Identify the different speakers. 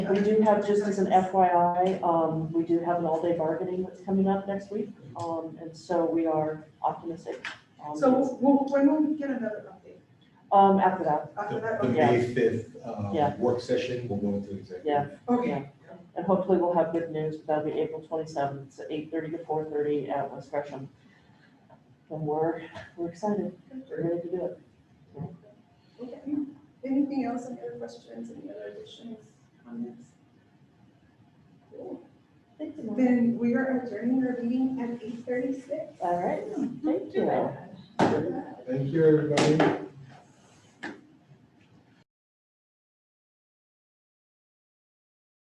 Speaker 1: We do have, just as an FYI, um, we do have an all-day bargaining that's coming up next week, um, and so we are optimistic. um,
Speaker 2: So we'll- we'll- when will we get another update?
Speaker 1: Um, after that,
Speaker 2: After that,
Speaker 3: The
Speaker 2: okay,
Speaker 3: May fifth,
Speaker 1: Yeah.
Speaker 3: um, work session, we'll go into executive.
Speaker 1: Yeah.
Speaker 2: okay.
Speaker 1: and hopefully we'll have good news, but that'll be April twenty-seventh, it's eight thirty to four thirty at West Gresham. And we're, we're excited, we're ready to do it.
Speaker 2: Okay. Anything else, any other questions, any other additions, comments? Cool. Then we are adjourning our meeting at eight thirty-six.
Speaker 1: All right, thank you.
Speaker 3: Thank you, everybody.